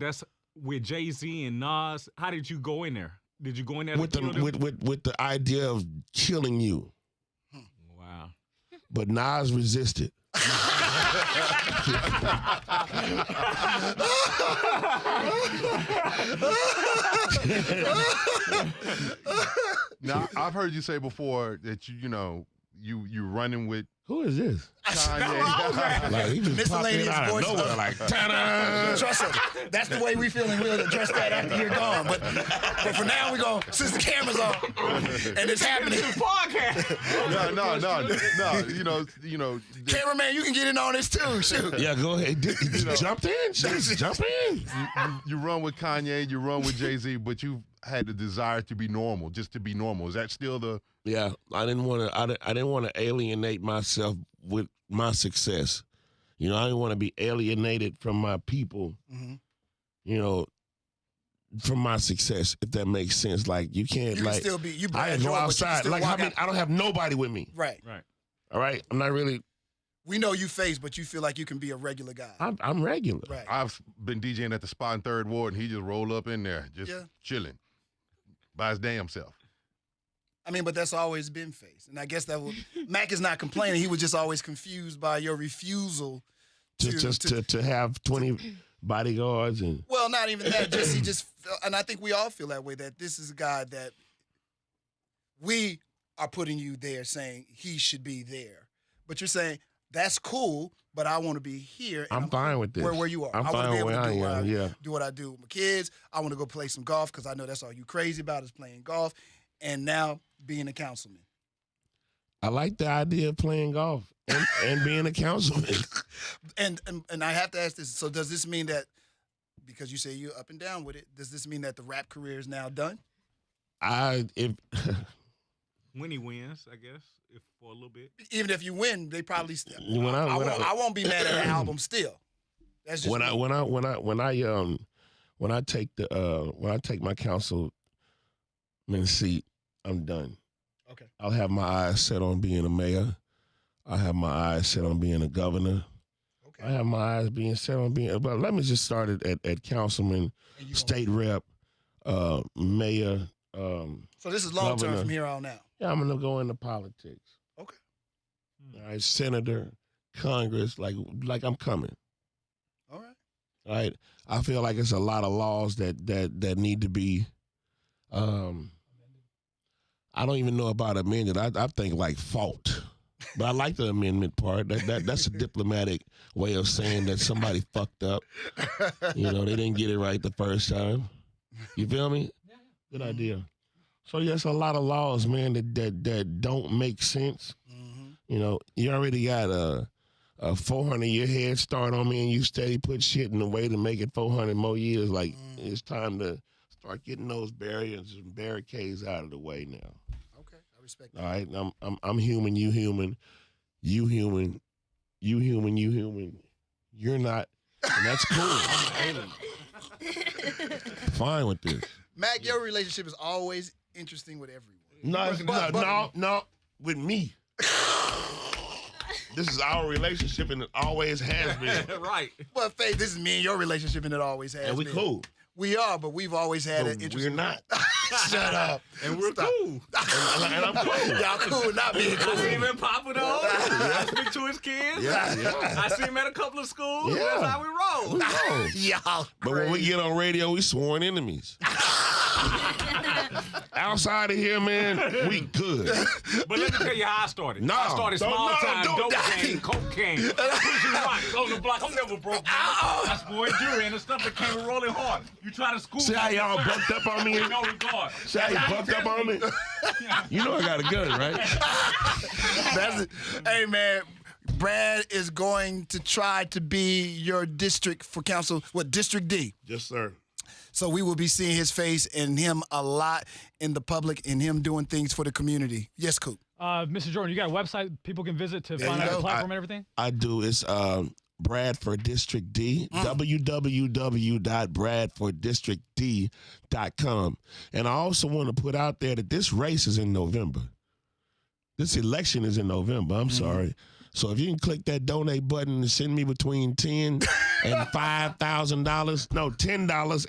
That's with Jay Z and Nas. How did you go in there? Did you go in there with to the kill them? with, with with the idea of killing you, wow. but Nas resisted. Now I've heard you say before that you you know you you running with Who is this? Kanye. Like he just popped in Miscellaneous out of voice. nowhere, like ta-da! Trust us. That's the way we feeling. We'll address that after you're gone. But but for now, we going since the camera's on and it's happening. no, no, no, no. You know, you know. th- Cameraman, you can get in on this too. Shoot. Yeah, go ahead. Did- did- jump in, just jump in. You, you- you run with Kanye, you run with Jay Z, but you've had the desire to be normal, just to be normal. Is that still the? Yeah, I didn't want to. I didn't, I didn't want to alienate myself with my success. You know, I didn't want to be alienated from my people. Mhm. You know, from my success, if that makes sense. Like you You can't can like still be. I You Brad go Jordan, but you can outside. still Like I walk mean, out. I don't have nobody with me. Right. Right. All right, I'm not really. We know you face, but you feel like you can be a regular guy. I'm, I'm regular. right. I've been DJing at the spot in Third Ward, and he just roll up in there, just Yeah. chilling by his damn self. I mean, but that's always been face, and I guess that would, Mac is not complaining. He was just always confused by your refusal. To, To- just to, to- to have twenty bodyguards and Well, not even that. Just he just, felt, and I think we all feel that way. That this is a guy that we are putting you there, saying he should be there, but you're saying that's cool, but I want to be here. and I'm fine with this. Where where you are. I'm I want to fine be able where to I do what I am. Yeah. do what I do with my kids. I want to go play some golf because I know that's all you crazy about is playing golf, and now being a councilman. I like the idea of playing golf and, and being a councilman. And, and and I have to ask this. So does this mean that because you say you're up and down with it, does this mean that the rap career is now done? I if When he wins, I guess, if for a little bit. Even if you win, they probably still. When I- I, when won't, I- I won't be mad at the album still. That's just when I me. when I when I when I um when I take the uh when I take my councilman seat, I'm done. okay. I'll have my eyes set on being a mayor. I have my eyes set on being a governor. Okay. I have my eyes being set on being. But let me just start it at, at councilman, And you gonna- state rep, uh, mayor. Um, so this is long term governor. from here on out. yeah, I'm gonna go into politics. Okay. All right, senator, Congress, like like I'm coming. All right. right? I feel like it's a lot of laws that that that need to be. Um, I don't even know about amended. I, I think like fault, but I like the amendment part. That, that that's a diplomatic way of saying that somebody fucked up. You know, they didn't get it right the first time. You feel me? Good idea. So yes, a lot of laws, man, that that that don't make sense. hmm You know, you already got a a 400 year head start on me, and you steady put shit in the way to make it 400 more years. Like Mm. it's time to start getting those barriers and barricades out of the way now. Okay. I respect All that. right, I'm I'm I'm human, you human, you human, you human, you human. You're not, and that's cool. I'm fine with this. Mac, your relationship is always interesting with everyone. No, it's- But- no, but- no, no, with me. this is our relationship, and it always has been. right. But Faith, this is me and your relationship, and it always has. and we been. cool. We are, but we've always had But an interest. we're not. Shut up. And we're Stop. cool. and, and I'm cool. Y'all cool, not being I see him cool. at Papa though. I speak to his kids. Yeah, yeah. I see him at a couple of schools. Yeah. That's how we roll. No. Y'all. Oh, But when we get on radio, we sworn enemies. Outside of here, man, we good. But let me tell you how I started. No, I started don't- small no, time don't dope die. game, cocaine, pushing rocks on the block. I'm never broke. man. That's boy durian and stuff that came rolling hard. You try to school See how me, y'all sir, bucked up on me? with No regard. See how you bucked up on me? You know I got a gun, right? That's it. Hey man, Brad is going to try to be your district for council. What district D? Yes, sir. So we will be seeing his face and him a lot in the public and him doing things for the community. Yes, Coop. Uh, Mr. Jordan, you got a website people can visit to There find you out go. the platform I- and everything? I do. It's um, Bradford District D, www.bradforddistrictd.com. And I also want to put out there that this race is in November. This election is in November. I'm sorry. So if you can click that donate button and send me between ten and five thousand dollars, no ten dollars